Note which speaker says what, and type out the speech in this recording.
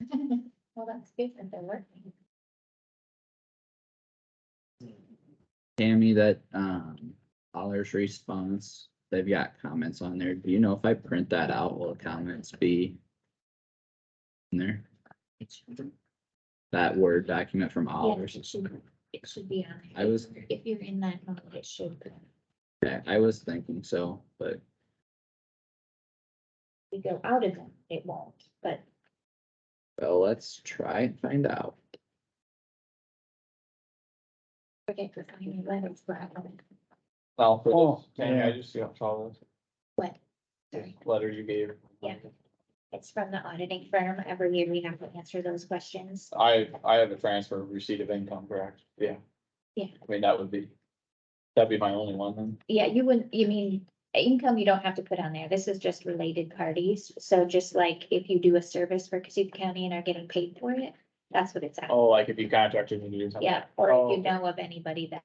Speaker 1: Well, that's good that they're working.
Speaker 2: Tammy, that, um, Pollard's response, they've got comments on there. Do you know if I print that out, will the comments be in there?
Speaker 1: It should-
Speaker 2: That Word document from
Speaker 1: Yeah,
Speaker 2: Pollard's?
Speaker 1: it should, it should be on. there.
Speaker 2: I was-
Speaker 1: If you're in that mode, it should
Speaker 2: Yeah, I was thinking so, but
Speaker 1: we go out of them, it won't, but
Speaker 2: well, let's try and find out.
Speaker 1: forget to find your letters, but I haven't.
Speaker 3: Well,
Speaker 4: Oh,
Speaker 3: for this, Tammy, I
Speaker 4: yeah.
Speaker 3: just got trouble
Speaker 1: What?
Speaker 3: with
Speaker 1: Sorry.
Speaker 3: this letter you gave.
Speaker 1: Yeah. It's from the auditing firm. Every year we have to answer those questions.
Speaker 3: I, I have a transfer of receipt of income, correct? Yeah.
Speaker 1: Yeah.
Speaker 3: I mean, that would be, that'd be my only one then.
Speaker 1: Yeah, you wouldn't, you mean, income you don't have to put on there. This is just related parties. So just like if you do a service for Cassuth County and are getting paid for it, that's what it's at.
Speaker 3: Oh, like if you contracted me to do something.
Speaker 1: Yeah, or if
Speaker 3: Oh,
Speaker 1: you know of anybody that